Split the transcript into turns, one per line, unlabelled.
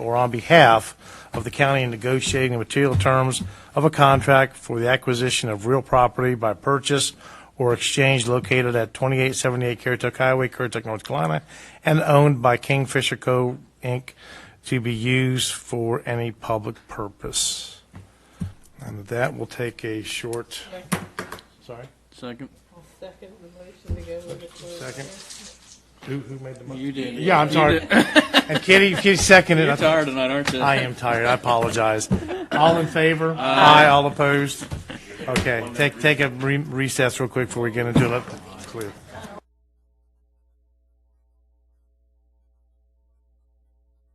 or on behalf of the county in negotiating the material terms of a contract for the acquisition of real property by purchase or exchange located at 2878 Currituck Highway, Currituck, North Carolina, and owned by Kingfisher Co., Inc., to be used for any public purpose. And with that, we'll take a short, sorry,
Second.
Second, the motion to go with the closed
second.
session.
Who, who made the motion?
You did.
Yeah, I'm
You
sorry.
did.
And Kitty, Kitty seconded.
You're
I
tired tonight, aren't you?
I am tired. I apologize. All in favor? Aye. All opposed? Okay, take, take a re- recess real quick before we get into it. Clear.